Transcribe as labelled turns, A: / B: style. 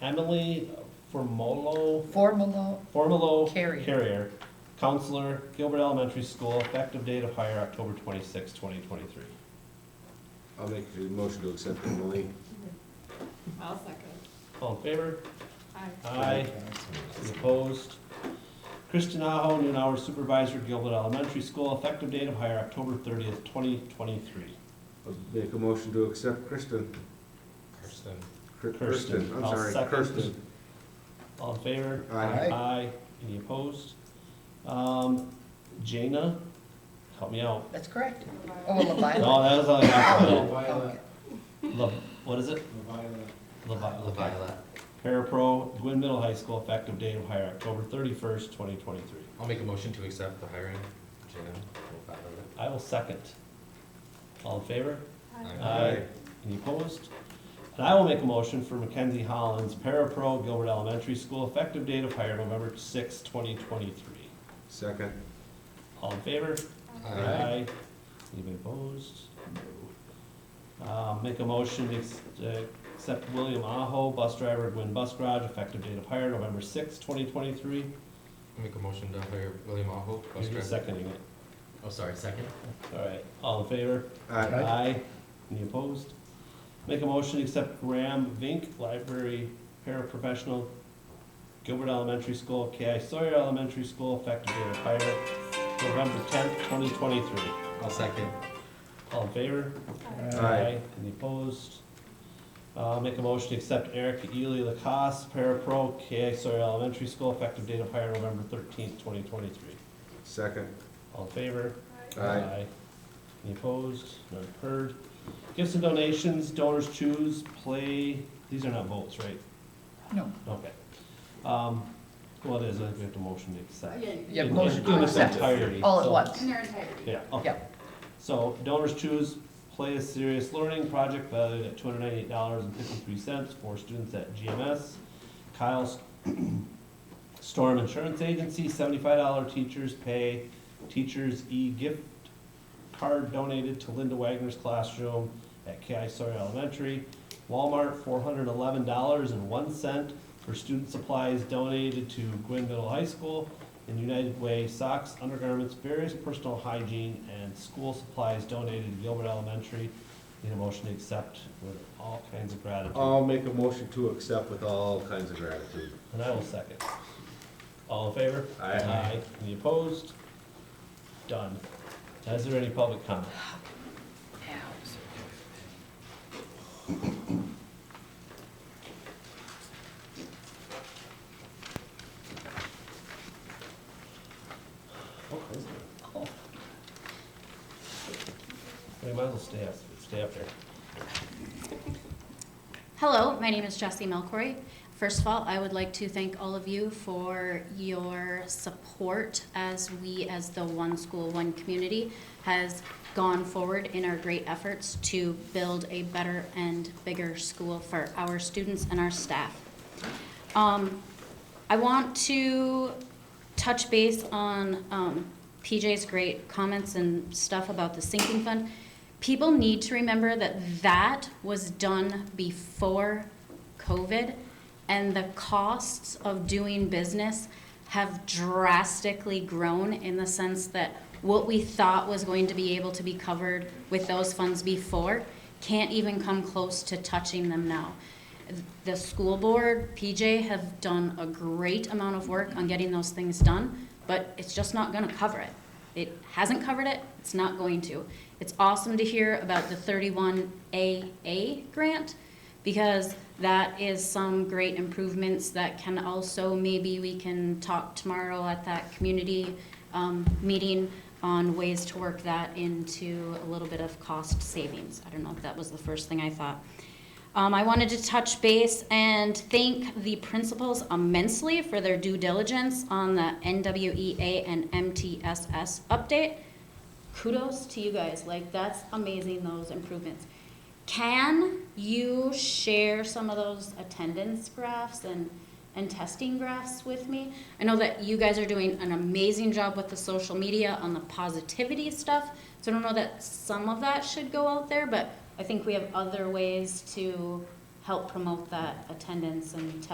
A: Emily Formolo,
B: Formalo,
A: Formolo.
B: Carrier.
A: counselor, Gilbert Elementary School, effective date of hire October twenty-sixth, twenty twenty-three.
C: I'll make a motion to accept Emily.
D: I'll second.
A: All in favor?
D: Aye.
A: Aye. Any Opposed? Kristen Aho, noon hour supervisor, Gilbert Elementary School, effective date of hire October thirtieth, twenty twenty-three.
C: I'll Make a motion to accept Kristen.
E: Kirsten.
C: Kir-
A: Kirsten.
C: Kirsten, I'm
A: I'll
C: sorry,
A: second.
C: Kirsten.
A: All in favor?
C: Aye.
E: Aye.
A: Aye. Any opposed? Um, Jana, help me out.
B: that's correct. Oh, well, Leviathan.
A: No, that is all I got for now.
E: Violet.
A: Le- what is it?
E: Violet.
A: Levi- Levi- Parapro, Gwynn Middle High School, effective date of hire October thirty-first, twenty twenty-three.
E: I'll make a motion to accept the hiring. Jana. we'll file it.
A: I will second. All in favor?
E: Aye.
A: Aye. Any opposed? And I will make a motion for Mackenzie Hollins, Parapro, Gilbert Elementary School, effective date of hire November sixth, twenty twenty-three.
C: Second.
A: All in favor?
E: Aye.
A: Anybody opposed? No. Uh, make a motion to ex- uh, accept William Aho, bus driver, Gwin Bus Garage, effective date of hire November sixth, twenty twenty-three.
E: I'll Make a motion to hire William Aho, bus
A: You're
E: driver.
A: seconding it.
E: Oh, sorry, second?
A: All right, all in favor?
C: Aye.
A: Any opposed? Make a motion to accept Graham Vink, library paraprofessional, Gilbert Elementary School, K.I. Sawyer Elementary School, effective date of hire November tenth, twenty twenty-three.
E: I'll second.
A: All in favor?
C: Aye.
A: Any opposed? Uh, make a motion to accept Eric Ely Lacoste, parapro, K.I. Sawyer Elementary School, effective date of hire November thirteenth, twenty twenty-three.
C: Second.
A: All in favor?
C: Aye.
A: Any opposed? None heard. Gifts and donations, donors choose, play, these are not votes, right?
B: No,
A: Okay. Um, well, it is, I think we have to motion to accept.
D: Yeah, you
B: Yeah,
A: In-
D: can-
B: motion to
A: in its
B: accept.
A: entirety,
B: all at
A: so-
B: once.
D: In their entirety.
A: Yeah, okay.
B: Yeah,
A: So donors choose, play a serious learning project valued at two hundred ninety-eight dollars and fifty-three cents for students at GMS. Kyle's Storm Insurance Agency, seventy-five dollar teachers pay, teachers e-gift card donated to Linda Wagner's classroom at KI Sawyer Elementary. Walmart, four hundred eleven dollars and one cent for student supplies donated to Gwynn Middle High School. And United Way socks, undergarments, various personal hygiene and school supplies donated to Gilbert Elementary. Need a motion to accept with all kinds of gratitude.
C: I'll make a motion to accept with all kinds of gratitude.
A: And I will second. All in favor?
C: Aye.
A: Any opposed? Done. Is there any public comment? We might as well stay up, stay up there.
F: Hello, my name is Jessie Melcory. First of all, I would like to thank all of you for your support as we, as the One School, One Community, has gone forward in our great efforts to build a better and bigger school for our students and our staff. Um, I want to touch base on um, PJ's great comments and stuff about the sinking fund. People need to remember that that was done before COVID, and the costs of doing business have drastically grown in the sense that what we thought was going to be able to be covered with those funds before can't even come close to touching them now the school board, PJ, have done a great amount of work on getting those things done, but it's just not gonna cover it. It hasn't covered it, it's not going to. It's awesome to hear about the thirty-one AA grant, because that is some great improvements that can also, maybe we can talk tomorrow at that community, um, meeting on ways to work that into a little bit of cost savings. I don't know if that was the first thing I thought. Um, I wanted to touch base and thank the principals immensely for their due diligence on the NWEA and MTSS update. Kudos to you guys, like, that's amazing, those improvements. Can you share some of those attendance graphs and, and testing graphs with me? I know that you guys are doing an amazing job with the social media on the positivity stuff, so I don't know that some of that should go out there, but I think we have other ways to help promote that attendance and testing.